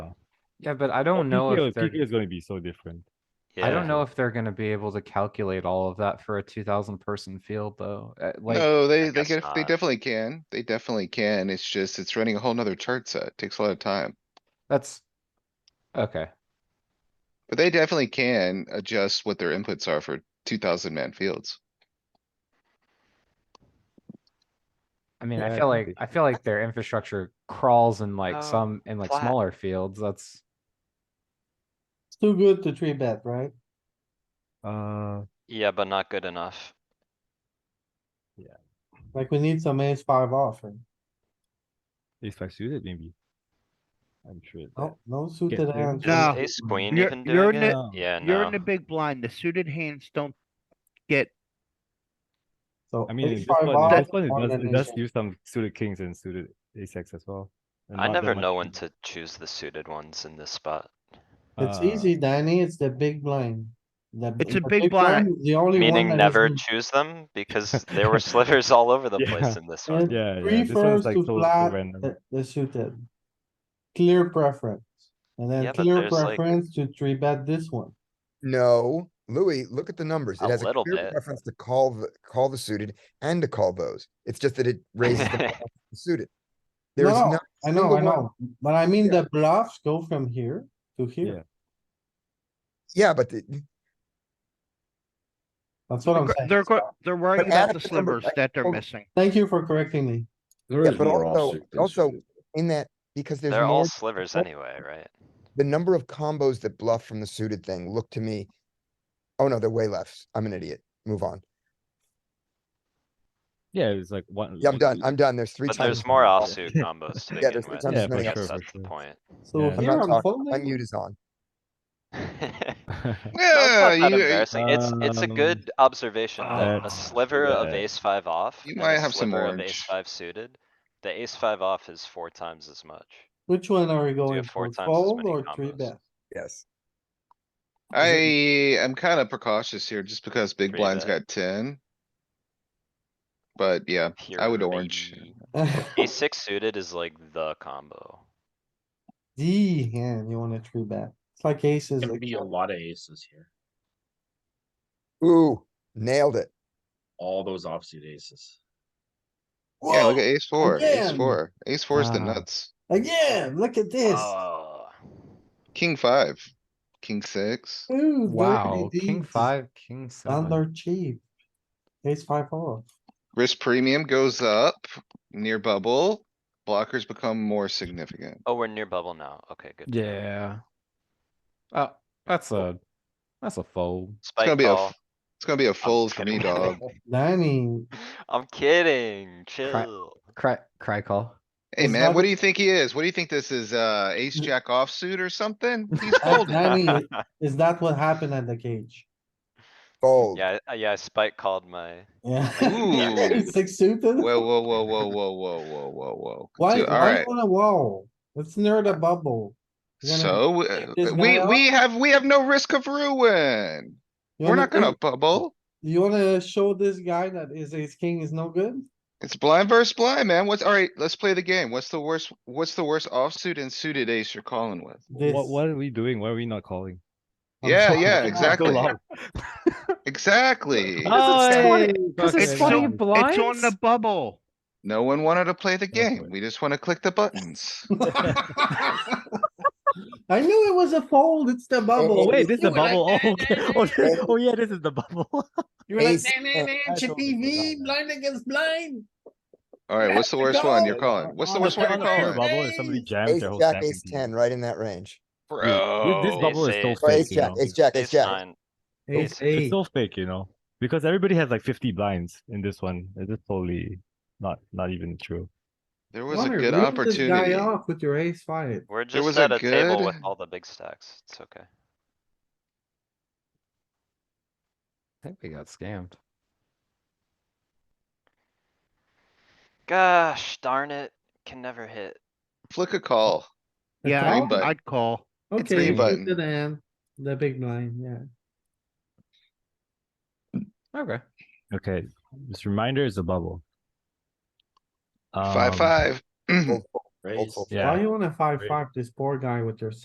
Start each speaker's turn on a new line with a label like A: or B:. A: Yeah, but I don't know
B: PKO
A: if they're,
B: PKO is going to be so different.
A: I don't know if they're gonna be able to calculate all of that for a two thousand person field though. Uh, Like,
C: No, they, they
D: guess
C: get, they
D: not.
C: definitely can. They definitely can. It's just, it's running a whole nother chart set. Takes a lot of time.
A: that's, okay,
C: But they definitely can adjust what their inputs are for two thousand man fields.
A: I mean,
B: Yeah,
A: I
B: it
A: feel
B: could
A: like,
B: be.
A: I feel like their infrastructure crawls in
D: Oh,
A: like some, in like
D: flat.
A: smaller fields, that's.
E: It's too good to three bet, right?
B: Uh,
D: Yeah, but not good enough.
E: Like we need some ace five off, right?
B: ace five suited maybe. I'm sure. it's
E: No,
F: Oh,
B: there.
E: no suited
B: Yeah.
E: hands.
G: No.
D: Ace queen
G: You're-
D: even
G: you're
D: doing
G: in
D: it?
B: the-
D: Yeah,
G: You're in
D: no.
G: the big blind. The suited hands don't get,
E: So
B: I mean, in
E: ace
B: this
E: five
B: one,
E: off.
B: in this one,
E: more
B: it does,
E: than
B: it does
E: ace-
B: use some suited kings and suited ace X as well. and
D: I
B: not that
D: never
B: much
D: know when
B: kings.
D: to choose the suited ones in this spot.
E: It's
B: Uh,
E: easy, Danny. It's the big blind. The-
G: It's a
E: the
G: big blind.
E: is The only one.
D: Meaning
E: that
D: never
E: isn't-
D: choose them because there were slivers all over the place
B: Yeah.
D: in this
E: Yeah.
D: one.
B: Yeah, yeah, this
E: Prefers
B: one's like
E: to
B: so- so
E: flat
B: random.
E: the- the suited. Clear preference. And
D: Yeah,
E: then
D: but
E: clear
D: there's like-
E: preference to three bet this one.
F: No, Louis, look at the numbers.
D: A
F: It has a
D: little
F: clear
D: bit.
F: preference to call the, call the suited and to call those. It's just that it raises the
D: Yeah,
F: the suited.
E: No,
F: There is
E: no,
F: not,
E: I know,
F: single
E: I know, but I mean
F: Yeah.
E: the bluffs go from here to here.
B: Yeah.
F: yeah, but the-
E: That's what I'm
G: gr-
E: saying.
G: they're, go- they're worried
F: Oh, But
G: about
F: add
G: the
F: up the number- Oh.
G: slivers that they're
F: hold-
G: missing.
E: Thank you for correcting me.
H: There
F: Yeah,
H: is
F: but
H: more
F: also-
H: offsuit than
F: also-
H: suited.
F: in that, because there's
D: They're all
F: more,
D: slivers
F: more-
D: anyway, right?
F: the number of combos that bluff from the suited thing, look to me. Oh no, they're way left. I'm an idiot. Move on.
B: Yeah, it's like one.
F: Yeah, I'm done. I'm done. There's three
D: But
F: times.
D: there's
F: as
D: more
F: many.
D: offsuit combos to
F: Yeah,
D: begin
F: there's three
D: with.
F: times
B: Yeah,
D: I
B: as many.
D: guess
B: for
D: that's the
B: sure,
D: point.
B: Yeah.
E: So
B: I'm
F: I'm
E: here
F: not
E: I'm
F: talking. My
E: folding.
F: mute is on.
D: No,
C: Yeah,
D: it's not that
C: you,
D: embarrassing. It's, it's a
B: Um,
D: good observation that a
B: that's-
D: sliver of
B: yeah.
D: ace five off.
C: You
D: and
C: might
D: a
C: have some
D: sliver of
C: orange.
D: Ace five suited. The ace five off is four times as much.
E: Which one are we going
D: have four
E: for?
D: times as
E: Fold
D: many
E: or three
D: combos.
E: bet?
F: Yes.
C: I am kinda precautious here just because big
D: Three
C: blind's
D: bet.
C: got ten. But yeah, I would
D: Here,
C: orange.
D: baby. Ace six suited is like the combo.
E: D hand, you wanna three bet. It's like aces.
H: There'd
E: like-
H: be a lot of aces here,
F: Ooh, nailed it.
H: all those offsuit aces.
C: Yeah, look at
E: Whoa,
C: ace four, ace
E: again.
C: four, ace four is the
A: Ah.
C: nuts.
E: Again, look at this.
C: Uh,
D: Oh,
C: King five, king six.
E: Ooh,
A: Wow,
E: dirty
A: king
E: deeds.
A: five, king seven.
E: Under cheap. Ace five off.
C: Risk premium goes up near bubble. Blockers become more significant.
D: oh, we're near bubble now. Okay, good. to know.
A: Yeah. Oh, that's a, that's a fold.
C: It's gonna
D: Spike
C: be a,
D: call.
C: f- it's gonna be a fold for me,
D: kidding.
C: dog.
E: Danny,
D: I'm kidding, chill.
A: Cry, cry call.
C: Hey,
E: It's
C: man,
E: not-
C: what do you think he is? What do you think this is? Uh, ace jack offsuit or something? He's
E: that
C: folding.
E: Danny, is that what happened at the cage?
F: Fold.
D: Yeah, I- yeah, Spike called my,
E: Yeah.
C: Ooh.
E: Six suited?
C: Whoa, whoa, whoa, whoa, whoa, whoa, whoa, whoa, whoa.
E: Why,
C: Dude, all
E: why
C: right,
E: on a wall? Let's nerd a bubble. You're gonna-
C: so uh,
E: this
C: we,
E: guy
C: we have, we have no risk of ruin.
E: you
C: We're
E: wanna- eh,
C: not gonna bubble.
E: You wanna show this guy that his ace king is no good?
C: It's blind versus blind, man. What's, all right, let's play the game. What's the worst, what's the worst offsuit and suited ace you're calling with?
E: This.
B: What, what are we doing? Why are we not calling?
E: I'm
C: Yeah,
E: sorry.
C: yeah,
E: Go
C: exactly.
B: loud.
C: Exactly.
E: Ah.
A: Because it's twenty, because
B: fucking
A: it's
G: It's
A: twenty
G: on-
A: blinds?
G: It's on the bubble.
C: No one wanted to play the
B: That's
C: game.
B: right.
C: We just wanna click the buttons.
E: I knew it was a fold, it's the bubble.
B: Oh, wait, this is the
E: You were
B: bubble.
E: like,
B: Oh, okay. oh, this-
F: nah,
B: oh, yeah, this is the bubble.
E: You were like,
F: Ace-
E: nah, nah, nah,
B: I
E: chippy
B: totally
E: V,
B: forgot
E: blind against blind.
C: All right, what's the
E: Let's
C: worst one you're
E: go.
C: calling? What's the
E: On
C: worst one
E: the
C: you're
E: bubble.
C: calling?
B: bubble is somebody
E: Ace,
B: jams
F: Ace
B: their whole
F: jack,
B: stack
F: ace
B: into you.
F: ten, right in that range.
B: Dude, This
D: Ace
B: this bubble is so
D: eight.
F: Or
B: fake,
F: ace
B: you
F: jack,
B: know.
F: ace jack, ace
D: ace
F: jack.
D: nine.
E: Ace
B: It's
E: eight.
B: so fake, you know, because everybody has like fifty blinds in this one. It's just totally not, not even true.
C: There was a
E: Connor,
C: good
E: rip this guy
C: opportunity.
E: off With your ace five.
D: We're just
C: was a
D: at a table
C: good-
D: with all the big stacks. It's okay.
A: I think we got scammed.
D: Gosh darn it, can never hit.
C: Flick a call.
G: Yeah,
C: green
G: I'd-
C: button.
G: I'd call.
C: It's green
E: Okay,
C: button.
E: suited and the big blind, yeah.
A: Okay.
B: Okay, this reminder is a bubble.
C: Five,
B: Um,
C: five.
F: Fold, fold, fold,
H: Raise.
F: fold.
B: Yeah.
E: Why you wanna five
H: Great.
E: five this poor guy with your